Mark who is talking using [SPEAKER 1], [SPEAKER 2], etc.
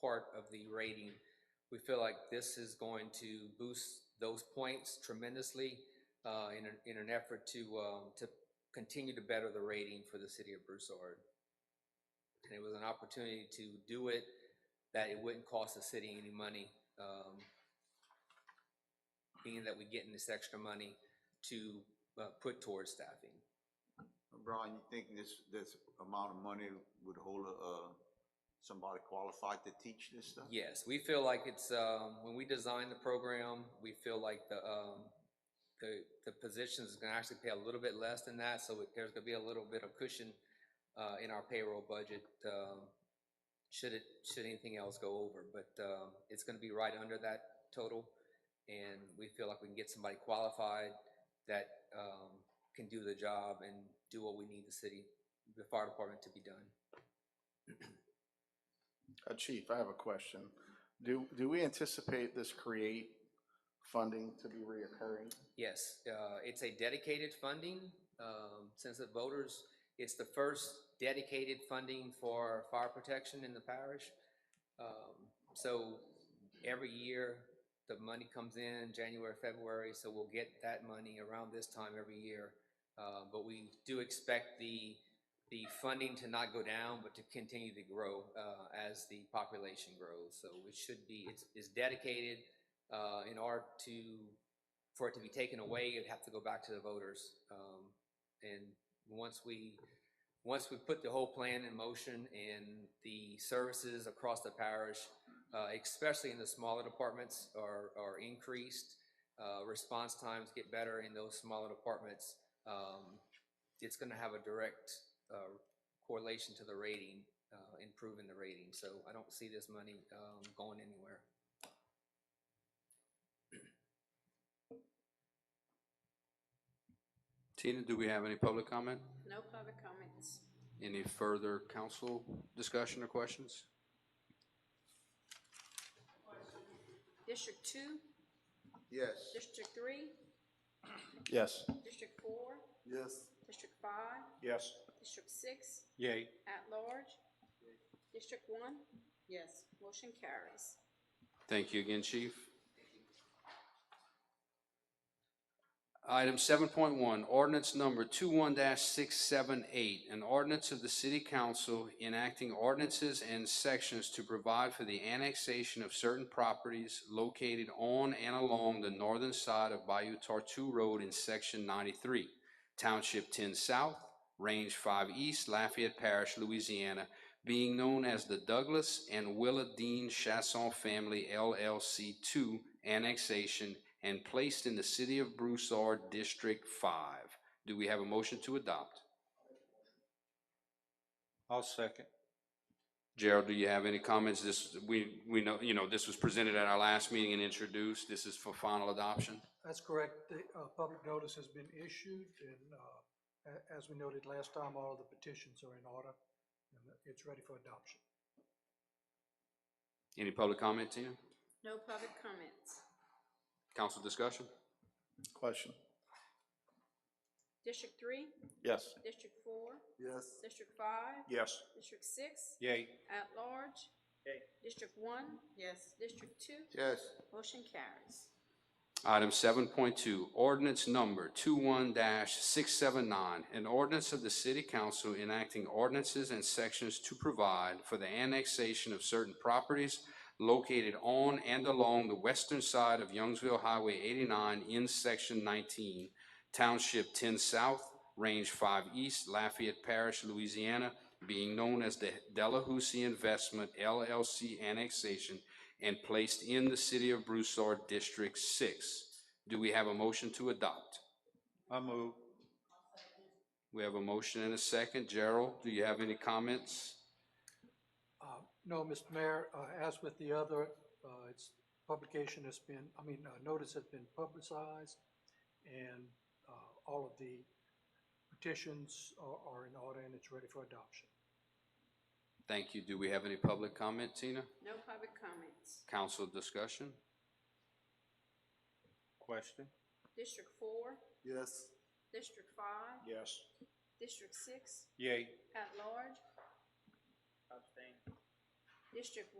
[SPEAKER 1] part of the rating. We feel like this is going to boost those points tremendously uh, in an, in an effort to, um, to continue to better the rating for the city of Broussard. And it was an opportunity to do it, that it wouldn't cost the city any money. um, Being that we get in this extra money to uh, put towards staffing.
[SPEAKER 2] Brian, you think this, this amount of money would hold, uh, somebody qualified to teach this stuff?
[SPEAKER 1] Yes, we feel like it's, um, when we design the program, we feel like the, um, the, the positions is gonna actually pay a little bit less than that, so it- there's gonna be a little bit of cushion, uh, in our payroll budget, um, should it, should anything else go over, but, um, it's gonna be right under that total. And we feel like we can get somebody qualified that, um, can do the job and do what we need the city, the fire department to be done.
[SPEAKER 3] Uh, Chief, I have a question. Do, do we anticipate this create funding to be reoccurring?
[SPEAKER 1] Yes, uh, it's a dedicated funding, um, since the voters, it's the first dedicated funding for fire protection in the parish. Um, So every year, the money comes in, January, February, so we'll get that money around this time every year. Uh, But we do expect the, the funding to not go down, but to continue to grow uh, as the population grows. So it should be, it's, it's dedicated uh, in order to for it to be taken away, it'd have to go back to the voters. Um, And once we, once we put the whole plan in motion and the services across the parish, uh, especially in the smaller departments are, are increased, uh, response times get better in those smaller departments, um, it's gonna have a direct uh, correlation to the rating, uh, improving the rating. So I don't see this money um, going anywhere.
[SPEAKER 4] Tina, do we have any public comment?
[SPEAKER 5] No public comments.
[SPEAKER 4] Any further council discussion or questions?
[SPEAKER 5] District two,
[SPEAKER 2] Yes.
[SPEAKER 5] district three,
[SPEAKER 3] Yes.
[SPEAKER 5] district four,
[SPEAKER 2] Yes.
[SPEAKER 5] district five,
[SPEAKER 3] Yes.
[SPEAKER 5] district six,
[SPEAKER 4] Yay.
[SPEAKER 5] at large. District one? Yes. Motion carries.
[SPEAKER 4] Thank you again, Chief. Item seven point one, ordinance number two-one six seven eight, an ordinance of the city council enacting ordinances and sections to provide for the annexation of certain properties located on and along the northern side of Bayou Tartu Road in section ninety-three, township ten south, range five east, Lafayette Parish, Louisiana, being known as the Douglas and Willa Dean Chasson Family LLC Two Annexation and placed in the City of Broussard District Five. Do we have a motion to adopt?
[SPEAKER 6] I'll second.
[SPEAKER 4] Gerald, do you have any comments? This, we, we know, you know, this was presented at our last meeting and introduced. This is for final adoption.
[SPEAKER 7] That's correct. The uh, public notice has been issued, and uh, a- as we noted last time, all of the petitions are in order, and it's ready for adoption.
[SPEAKER 4] Any public comment, Tina?
[SPEAKER 5] No public comments.
[SPEAKER 4] Council discussion?
[SPEAKER 3] Question?
[SPEAKER 5] District three,
[SPEAKER 3] Yes.
[SPEAKER 5] district four,
[SPEAKER 2] Yes.
[SPEAKER 5] district five,
[SPEAKER 3] Yes.
[SPEAKER 5] district six,
[SPEAKER 6] Yay.
[SPEAKER 5] at large. District one? Yes. District two?
[SPEAKER 2] Yes.
[SPEAKER 5] Motion carries.
[SPEAKER 4] Item seven point two, ordinance number 21 six seven nine, an ordinance of the city council enacting ordinances and sections to provide for the annexation of certain properties located on and along the western side of Youngsville Highway eighty-nine in section nineteen, township ten south, range five east, Lafayette Parish, Louisiana, being known as the Delahousie Investment LLC annexation and placed in the city of Broussard District Six. Do we have a motion to adopt?
[SPEAKER 6] I move.
[SPEAKER 4] We have a motion and a second. Gerald, do you have any comments?
[SPEAKER 7] Uh, No, Mr. Mayor, uh, as with the other, uh, its publication has been, I mean, uh, notice has been publicized, and uh, all of the petitions are are in order, and it's ready for adoption.
[SPEAKER 4] Thank you. Do we have any public comment, Tina?
[SPEAKER 5] No public comments.
[SPEAKER 4] Council discussion?
[SPEAKER 6] Question?
[SPEAKER 5] District four,
[SPEAKER 2] Yes.
[SPEAKER 5] district five,
[SPEAKER 3] Yes.
[SPEAKER 5] district six,
[SPEAKER 6] Yay.
[SPEAKER 5] At large? Abstain. District